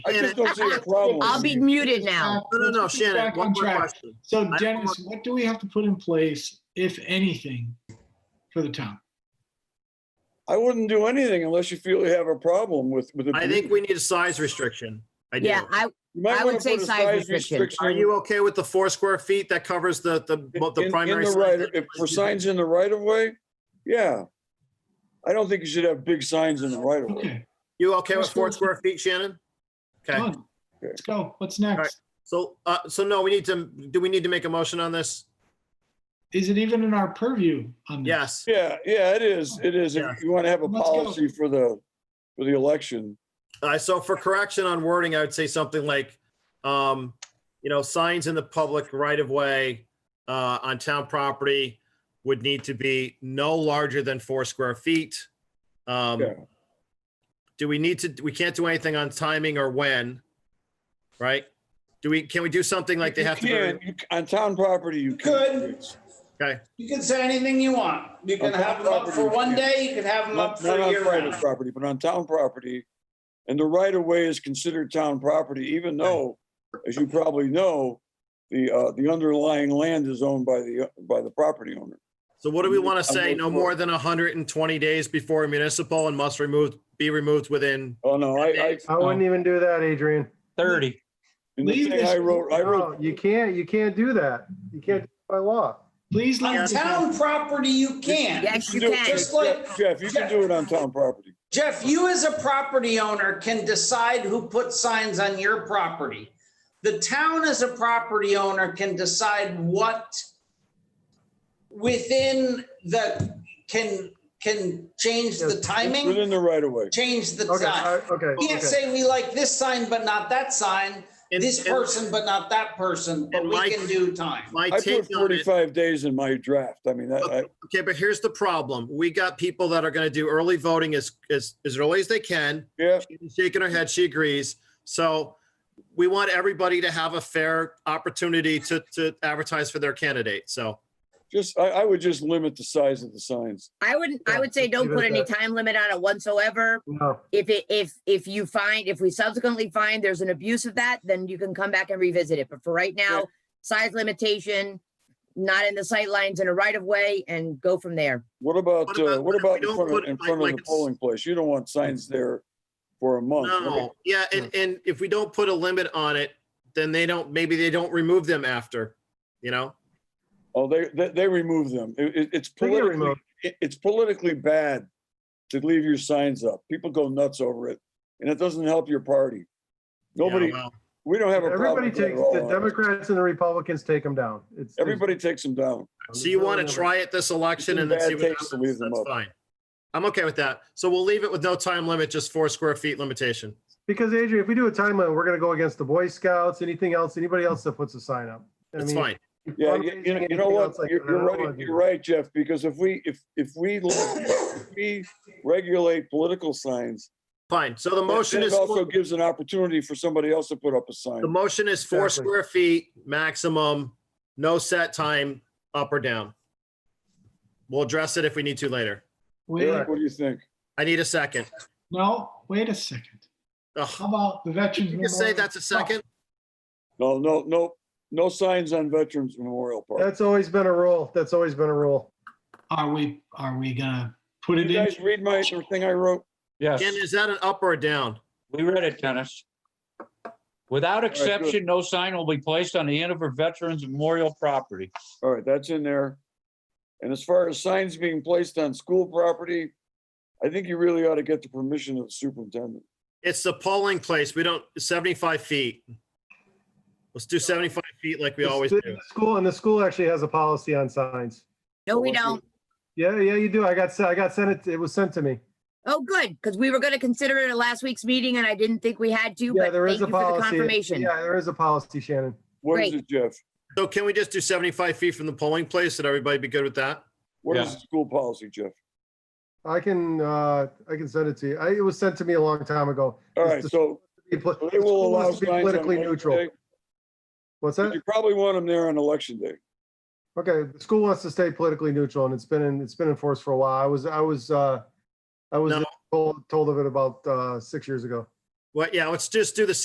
I just don't see a problem. I'll be muted now. No, no, no, Let's get Shannon, back one on more track. question. So don't Dennis, what do we have to put in place, if anything, for the town? I wouldn't do anything unless you feel you have a problem with, with. I think we need a size restriction. I do. Yeah, I, You might I wanna would say put a size restriction. Are you okay with the four square feet that covers the, the, both in- the in primary? the size right- and If for primary- signs in the right of way, yeah. I don't think you should have big signs in the right of way. Okay, You okay with four square feet, Shannon? Okay, done. Let's go. What's next? so, uh, so no, we need to, do we need to make a motion on this? Is it even in our purview on this? Yes. Yeah, yeah, it is, it is. If Yeah. you want to have a Let's go. policy for the, for the election. Uh, so for correction on wording, I would say something like, um, you know, signs in the public right of way, uh, on town property would need to be no larger than four square feet. Um, Yeah. do we need to, we can't do anything on timing or when, right? Do we, can we do something like they You have to? can, be- you c- On town property, you can. Okay, You can say anything you want. You can Okay. have them up for one day, you can have them up Not for not a on year private round. property, but on town property. And the right of way is considered town property, even though, as you probably know, the, uh, the underlying land is owned by the, by the property owner. so what do we want to say? vote No for it. more than hundred and twenty days before municipal and must remove, be removed within. Oh, no, I, I, I Oh. wouldn't even do that, Adrian. 30. in the Leave thing I this- wrote, I wrote No, you can't, you can't do that. You can't do it by law. Please On let me know. town property, you can. yes, you do it can. Just like- Jeff, you can do it on town property. Jeff, you as a property owner can decide who puts signs on your property. The town as a property owner can decide what within the, can, can change the timing, Within the right of way. change the Okay, I- time. okay. You Can't okay. say we like this sign but not that sign, And- this and person but not that person, but and we my- can do time. My I take put on it. forty-five days in my draft. I mean, that, I, Okay, but here's the problem. We got people that are gonna do early voting as, as, as early as they can. yeah, She's Shaking her head, she agrees. So we want everybody to have a fair opportunity to, to advertise for their candidate, so. just, I, I would just limit the size of the signs. I wouldn't, I Yeah, would say let's don't leave it put at any that. time limit on it whatsoever. No, If it, if, if you find, if we subsequently find there's an abuse of that, then you can come back and revisit it. But for right now, size limitation, not in the sight lines in a right of way and go from there. What about, What uh, what about- what about if we in don't front of, put it in like- front of like the it's- polling place? You don't want signs Mm. there for a month. right? No, yeah, and, and if we don't put a limit on it, then they don't, maybe they don't remove them after, you know? Oh, they, they, they remove them. It, it- it's they get politically, removed. it- it's politically bad to leave your signs up. People go nuts over it and it doesn't help your party. Yeah, Nobody, well, we don't have a problem. Everybody with that takes, at all, the honestly. Democrats and the Republicans take them down. It's. Everybody takes them down. So you want to try it this election and then see Bad what takes to leave happens? them That's up. fine. I'm okay with that. So we'll leave it with no time limit, just four square feet limitation. Because Adrian, if we do a timeline, we're gonna go against the Boy Scouts, anything else, anybody else that puts a sign up. I That's mean, fine. if Yeah, I'm you, raising you know- you know anything what, else like you're, that, I you're don't wanna right, do you're that. right, Jeff, because if we, if, if we, lo- if we regulate political signs, Fine. So the then motion it is. also gives an opportunity for somebody else to put up a sign. The motion is four Exactly. square feet maximum, no set time, up or down. We'll address it if we need to later. Wait, Eric, what do you think? I need a second. no, wait a second. How Ugh, about the veterans? You just say Memorial? that's a second? No, no, no, no signs on Veterans Memorial Park. That's always been a rule. That's always been a rule. Are we, are we gonna put Did it you in? guys read my, the thing I wrote? Yes, Ken, is that an up or a down? we read it, Dennis. Without good. exception, no sign will be placed on the end of a veteran's memorial property. All right, that's in there. And as far as signs being placed on school property, I think you really ought to get the permission of the superintendent. It's the polling place. We don't, 75 feet. Let's do 75 feet like we The- always the- do. the School, and the school actually has a policy on signs. No, we Okay. don't. Yeah, yeah, you do. I got, se- I got sent it, it was sent to me. Oh, good, because we were gonna consider it at last week's meeting and I didn't think we had to, Yeah, but there thank is you a for the policy. confirmation. Yeah, there is a policy, Shannon. What is Great. it, Jeff? So can we just do 75 feet from the polling place? Would everybody be good with that? What Yeah. is the school policy, Jeff? I can, uh, I can send it to you. I, it was sent to me a long time ago. All It's right, the- so Be poli- so the they will school allow has to be signs on Politically neutral. Wednesday, What's but that? You probably want them there on election day. Okay, the school wants to stay politically neutral and it's been in, it's been enforced for a while. I was, I was, uh, I was No. told, told of it about, uh, six years ago. Well, yeah, let's just do the